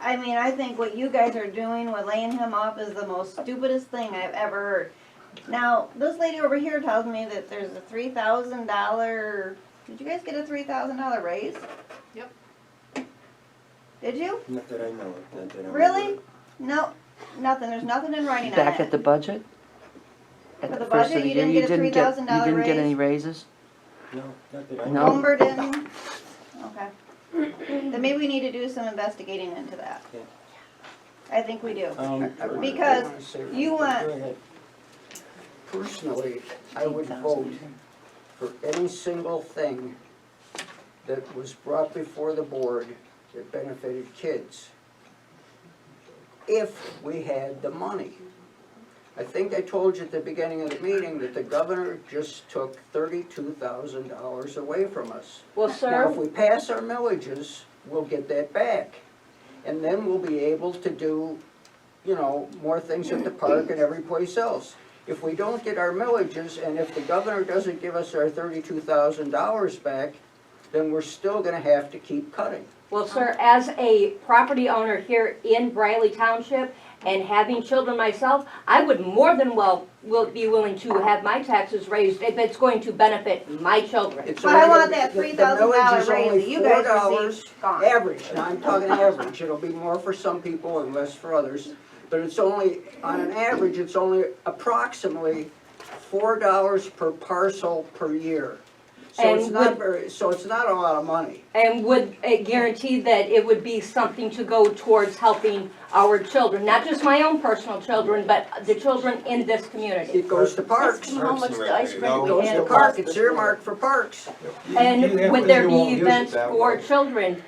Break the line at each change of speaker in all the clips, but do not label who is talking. I mean, I think what you guys are doing with laying him off is the most stupidest thing I've ever heard. Now, this lady over here tells me that there's a three thousand dollar, did you guys get a three thousand dollar raise?
Yep.
Did you?
Not that I know of, not that I'm. aware
Really?
of.
No, nothing, there's nothing in writing on it.
Back at the budget?
For
At
the
the first
budget,
of the year,
you didn't
you
get a
didn't get, you
$3,000
didn't get
raise?
any raises?
No, not that I know.
No.
of.
Lumber didn't, okay. Then maybe we need to do some investigating into that.
Yeah.
I think we do.
Um,
Uh, I wanna- I
Because
wanna say one
You
thing.
Go
want,
ahead.
Personally, I would vote for any single thing that was brought before the board that benefited kids. If we had the money. I think I told you at the beginning of the meeting that the governor just took thirty-two thousand dollars away from us.
Well,
Now, if
sir,
we pass our millages, we'll get that back. And then we'll be able to do, you know, more things at the park and every place else. If we don't get our millages, and if the governor doesn't give us our thirty-two thousand dollars back, then we're still gonna have to keep cutting.
well, sir, as a property owner here in Briley Township and having children myself, I would more than well, will be willing to have my taxes raised if it's going to benefit my children.
It's
but I
only-
want that
the- the
three thousand dollar
millage is only
raise that you guys
$4
received gone.
Average, now I'm talking average, it'll be more for some people and less for others, but it's only, on an average, it's only approximately four dollars per parcel per year. So it's
And
not
with-
very, so it's not a lot of money.
And would uh, guarantee that it would be something to go towards helping our children, not just my own personal children, but the children in this community.
It goes to parks,
That's how much the ice cream
No,
it
we
those
goes
had
to
are
across
park,
the
it's
street.
earmarked for parks.
You have
And
it,
would there
you won't
be
use it
events
that
for
way.
children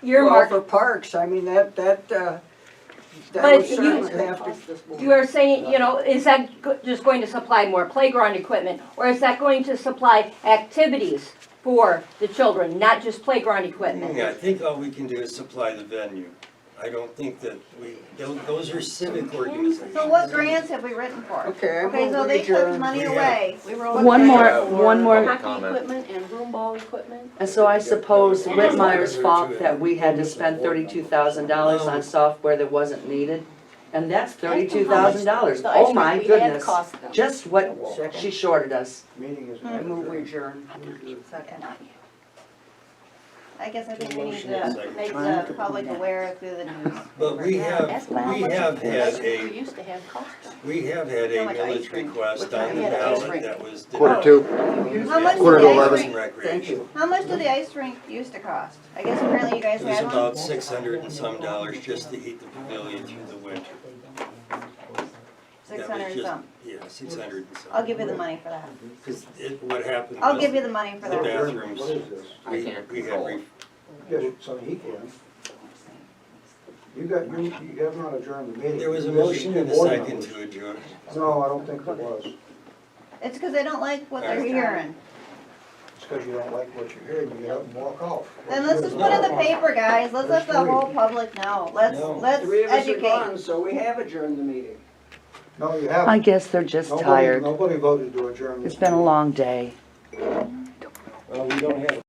Well,
earmarked
for parks, I mean, that, that, uh, that
But
would
you-
certainly have to.
You are saying, you know, is that go- just going to supply more playground equipment, or is that going to supply activities for the children, not just playground equipment?
Yeah, I think all we can do is supply the venue. I don't think that we, tho- those are civic organizations.
So what grants have we written for?
Okay, I
Okay,
move
so
we
they took
adjourn.
money
Yeah.
away.
We were all
One more,
excited for
one more,
Hockey equipment and broom ball equipment.
and so I suppose Whitmire's fault that we had to spend thirty-two thousand dollars on software that wasn't needed, and that's thirty-two thousand dollars,
The ice
oh
cream
my
we had
goodness.
cost them.
Just what she shorted us.
Meeting is.
I move we adjourn.
I guess I think we need
Motion is
to
like
make
trying
the
to
public
connect.
aware through the news.
But we have,
That's why I
we
want
have
The ice
had
cream we
a,
used to have cost them.
we have had a
How much ice
millage
cream?
request
We're
on
talking
the
about ice
ballot
cream.
that was.
Quarter
Oh.
two,
How much
Quarter
did
to
the ice
eleven.
rink,
Thank you.
how much did the ice rink used to cost? I guess apparently you guys
It was
had one.
about six hundred and some dollars just to heat the pavilion through the winter.
Six
That was
hundred and
just-
some.
Yeah, six hundred and some.
I'll give you the money for that.
Cause it, what happened
I'll
was
give you the money for
The
that.
bathrooms.
What is this?
We, we had, re-
Just so he can. You got, you, you have not adjourned the meeting.
there was a
This is
motion
two
and a
board
second
members.
to adjourn.
No, I don't think there was.
It's because they don't like what they're
Alright.
hearing.
It's because you don't like what you're hearing, you get up and walk off.
Then let's just put in the paper, guys. Let's let the whole public know. Let's,
No.
let's
Three of us are
educate.
gone, so we have adjourned the meeting.
No, you
I
haven't.
guess they're just
Nobody-
tired.
Nobody voted to adjourn this
It's been a
meeting.
long day.
Well, we don't have